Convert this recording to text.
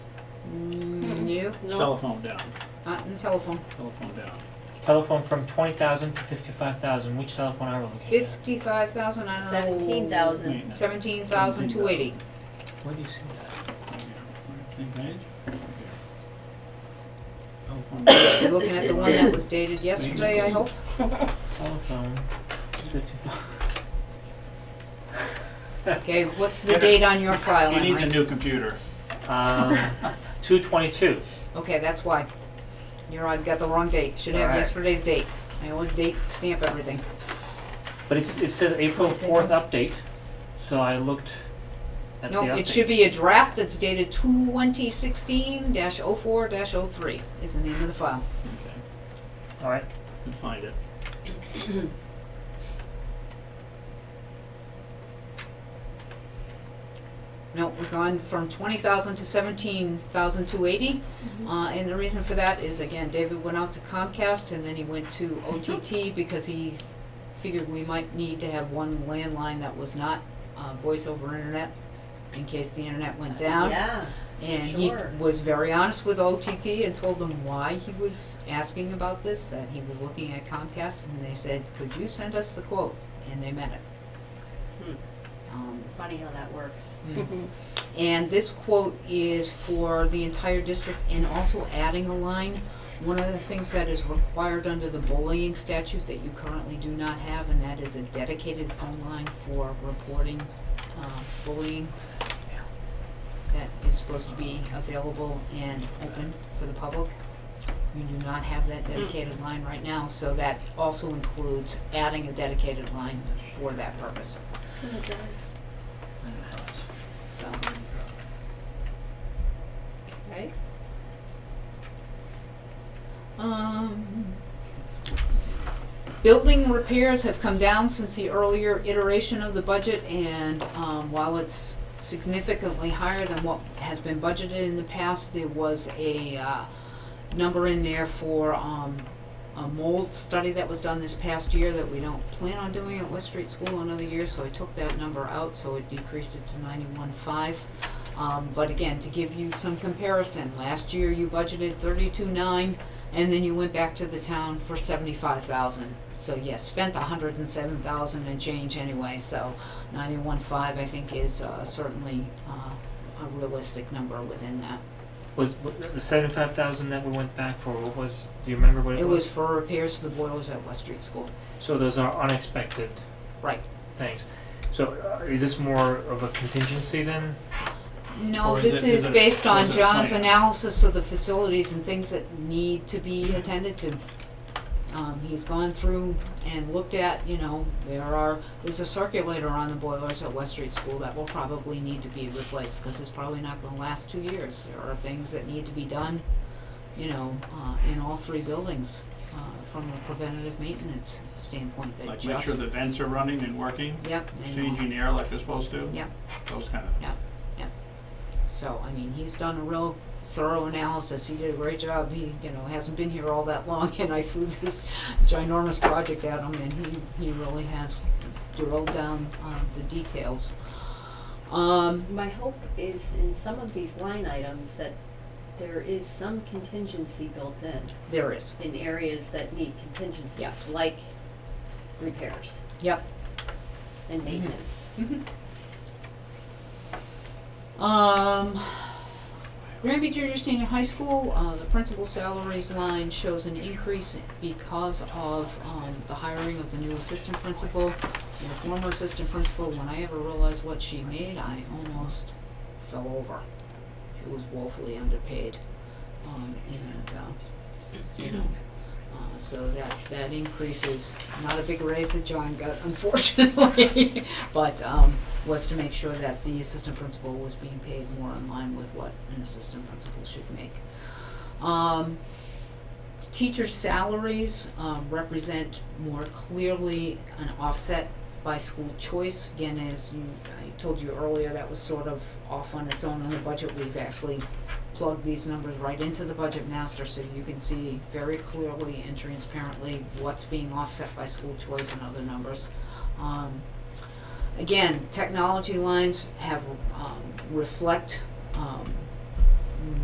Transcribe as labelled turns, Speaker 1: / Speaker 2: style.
Speaker 1: Mm, you?
Speaker 2: No,
Speaker 3: Telephone down,
Speaker 1: Not in the telephone.
Speaker 3: telephone down.
Speaker 4: Telephone from twenty thousand to fifty-five thousand, which telephone are we looking at?
Speaker 1: Fifty-five thousand, I don't know.
Speaker 2: seventeen thousand.
Speaker 3: Maintenance.
Speaker 1: Seventeen thousand two eighty.
Speaker 4: Where do you see that?
Speaker 3: Same page? Telephone
Speaker 1: You're looking at the one that was dated yesterday, I hope?
Speaker 4: Telephone, fifty-five.
Speaker 1: Okay, what's the date on your file,
Speaker 3: He needs a
Speaker 1: Emery?
Speaker 3: new computer.
Speaker 4: Um, two twenty-two.
Speaker 1: Okay, that's why. You're on, got the wrong date. Should have
Speaker 4: Alright.
Speaker 1: yesterday's date. I always date stamp everything.
Speaker 4: But it's, it says April fourth update, so I looked at the
Speaker 1: No,
Speaker 4: update.
Speaker 1: it should be a draft that's dated twenty sixteen oh 4 3 is the name of the file.
Speaker 3: Okay,
Speaker 4: All right,
Speaker 3: can find it.
Speaker 1: No, we've gone from twenty thousand to seventeen thousand two eighty. Uh, and the reason for that is, again, David went out to Comcast and then he went to OTT because he figured we might need to have one landline that was not, uh, voice over internet in case the internet went down.
Speaker 2: Uh, Yeah,
Speaker 1: And he
Speaker 2: sure.
Speaker 1: was very honest with OTT and told them why he was asking about this, that he was looking at Comcast, and they said, could you send us the quote? And they meant it. Um,
Speaker 2: Hmm, Funny how that works.
Speaker 1: mm. And this quote is for the entire district and also adding a line. One of the things that is required under the bullying statute that you currently do not have, and that is a dedicated phone line for reporting uh, bullying that is supposed to be available and open for the public. You do not have that dedicated line right now, so that also includes adding a dedicated line for that purpose, so.
Speaker 2: Okay.
Speaker 1: Um, building repairs have come down since the earlier iteration of the budget, and, um, while it's significantly higher than what has been budgeted in the past, there was a, uh, number in there for, um, a mold study that was done this past year that we don't plan on doing at West Street School another year, so I took that number out, so it decreased it to ninety-one five. Um, but again, to give you some comparison, last year you budgeted thirty-two nine, and then you went back to the town for seventy-five thousand. So yes, spent a hundred and seven thousand and change anyway, so ninety-one five, I think, is, uh, certainly, uh, a realistic number within that.
Speaker 4: was, was the seventy-five thousand that we went back for, what was, do you remember what it was?
Speaker 1: It was for repairs to the boilers at West Street School.
Speaker 4: So those are unexpected
Speaker 1: Right.
Speaker 4: things. So uh, is this more of a contingency then?
Speaker 1: No,
Speaker 3: Or is
Speaker 1: this
Speaker 3: it- is
Speaker 1: is
Speaker 3: it-
Speaker 1: based
Speaker 3: is
Speaker 1: on
Speaker 3: it
Speaker 1: John's
Speaker 3: planned?
Speaker 1: analysis of the facilities and things that need to be attended to. Um, he's gone through and looked at, you know, there are, there's a circulator on the boilers at West Street School that will probably need to be replaced, cause it's probably not gonna last two years. There are things that need to be done, you know, uh, in all three buildings, uh, from a preventative maintenance standpoint that
Speaker 3: Like
Speaker 1: just.
Speaker 3: make sure the vents are running and working,
Speaker 1: Yep, and, uh,
Speaker 3: exchanging air like they're supposed to.
Speaker 1: Yep.
Speaker 3: Those kind of,
Speaker 1: So, I mean, he's done a real thorough analysis. He did a great job. He, you know, hasn't been here all that long, and I threw this ginormous project at him, and he, he really has drilled down on the details. Um,
Speaker 2: My hope is in some of these line items that there is some contingency built in,
Speaker 1: there is.
Speaker 2: in areas that need contingencies.
Speaker 1: Yes.
Speaker 2: Like repairs
Speaker 1: Yep.
Speaker 2: and maintenance.
Speaker 1: Mm-hmm. Um, Granby Junior Senior High School, uh, the principal salaries line shows an increase because of, um, the hiring of the new assistant principal. And The former assistant principal, when I ever realized what she made, I almost fell over. She was woefully underpaid, um, and, uh, you know, uh, so that, that increase is not a big raise that John got unfortunately, but, um, was to make sure that the assistant principal was being paid more in line with what an assistant principal should make. Um, teacher salaries, um, represent more clearly an offset by school choice. Again, as you, I told you earlier, that was sort of off on its own in the budget. We've actually plug these numbers right into the budget master so you can see very clearly and transparently what's being offset by school choice and other numbers. Um, again, technology lines have, um, reflect, um,